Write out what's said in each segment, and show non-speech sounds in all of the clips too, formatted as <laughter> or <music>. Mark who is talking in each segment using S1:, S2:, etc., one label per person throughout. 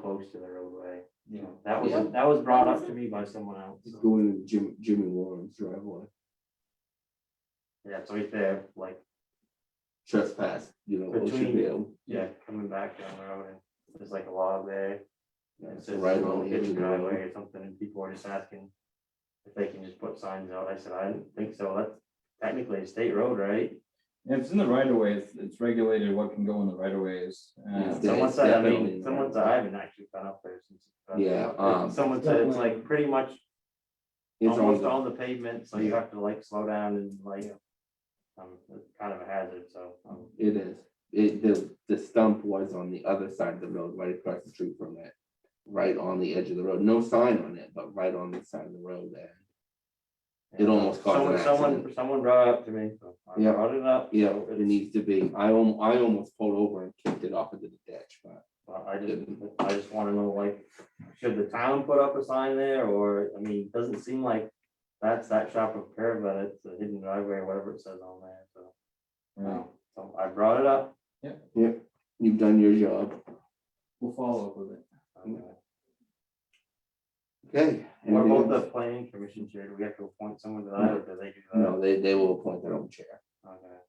S1: close to the roadway.
S2: Yeah.
S1: That was,
S3: Yeah.
S1: that was brought up to me by someone else.
S2: It's going in Jim, Jimmy Warren's driveway,
S1: Yeah, it's right there, like,
S2: trespass, you know,
S1: Between-
S2: Oceanville.
S1: yeah, coming back down the road and there's like a log there.
S2: Yeah,
S1: and It
S2: it's
S1: says
S2: Right on the edge
S1: hidden
S2: of the
S1: driveway
S2: road.
S1: or something and people are just asking if they can just put signs out. I said, I didn't think so. That's technically a state road, right?
S4: Yeah, It's in the right of way, it's, it's regulated what can go in the right of ways.
S2: Yeah.
S4: Uh,
S2: Yeah.
S1: Someone said, I
S2: definitely-
S1: mean, someone said, I haven't actually been up there since. it's been-
S2: Yeah, um,
S1: Someone said it's like pretty much
S2: It's on
S1: almost
S2: the,
S1: all the pavement, so you have to like slow down and like. Um, it's kind of a hazard, so, um,
S2: it is, it, the, the stump was on the other side of the road, right across the street from it. Right on the edge of the road, no sign on it, but right on the side of the road there. It almost caused
S1: someone,
S2: an
S1: someone,
S2: accident.
S1: someone brought it up to me, so I
S2: Yeah.
S1: brought it up,
S2: Yeah, it needs to be, I al- I almost pulled over and kicked it off of the ditch, but
S1: but I just, I just wanna know, like, should the town put up a sign there, or, I mean, it doesn't seem like. That's that shop of curb, but it's a hidden driveway, or whatever it says on there, so,
S4: right.
S1: um, so I brought it up.
S2: you've done your job.
S4: We'll follow up with it.
S1: um,
S2: Okay.
S1: What
S2: anything
S1: about the
S2: else?
S1: planning commission chair, do we have to appoint someone to that, or do they do that?
S2: No, they, they will appoint their own chair.
S1: Okay.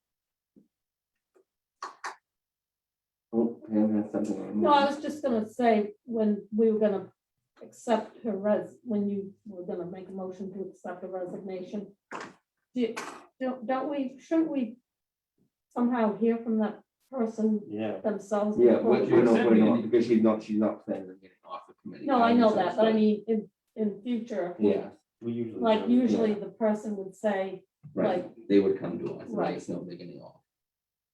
S2: Oh, Pam has something on. her
S3: No, I
S2: mind.
S3: was just gonna say, when we were gonna accept her res, when you were gonna make a motion to accept her resignation. Do, you- don't, don't we, shouldn't we somehow hear from that person
S1: Yeah,
S3: themselves?
S2: Yeah,
S3: before-
S2: we're, we're not,
S4: Except
S2: we're
S4: we
S2: not,
S4: need-
S2: because she's not, she's not planning on getting off the committee.
S3: No, I know that, but I
S2: understand.
S3: mean, in, in future,
S2: Yeah,
S1: we usually.
S3: like
S1: do.
S3: usually the person would say,
S2: right, they would come to us, and let
S3: Right.
S2: us know they're getting off.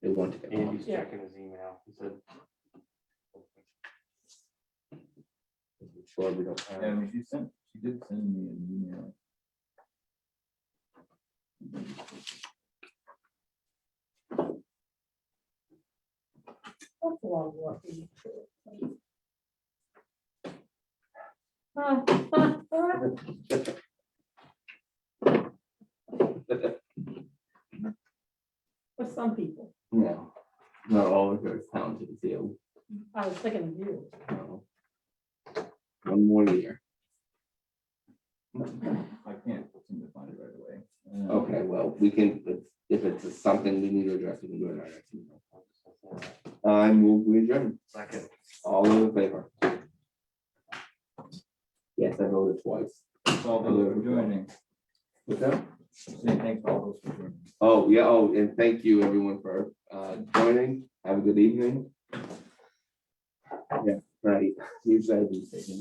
S2: They want to get off.
S1: Andy's
S3: Yeah.
S1: checking his email, he said.
S2: I'm Sure, we don't
S4: Yeah, I
S2: have.
S4: mean, she sent, she did send me an email.
S3: that's a lot of work. Ah, ah, ah. For some people,
S2: No, not all of her talented field,
S3: I was thinking of you.
S2: no. One more year,
S4: I can't seem to find it right away. Uh,
S2: okay, well, we can, if- if it's something we need to address, we can do it. at our next meeting. I move we adjourn,
S1: Second.
S2: all in favor? Yes, I voted twice.
S4: Thanks all those for joining.
S2: What's that?
S4: Say thanks all those for joining.
S2: Oh, yeah, oh, and thank you everyone for uh <laughs> joining. Have a good evening. Yeah, right. Usually I do say.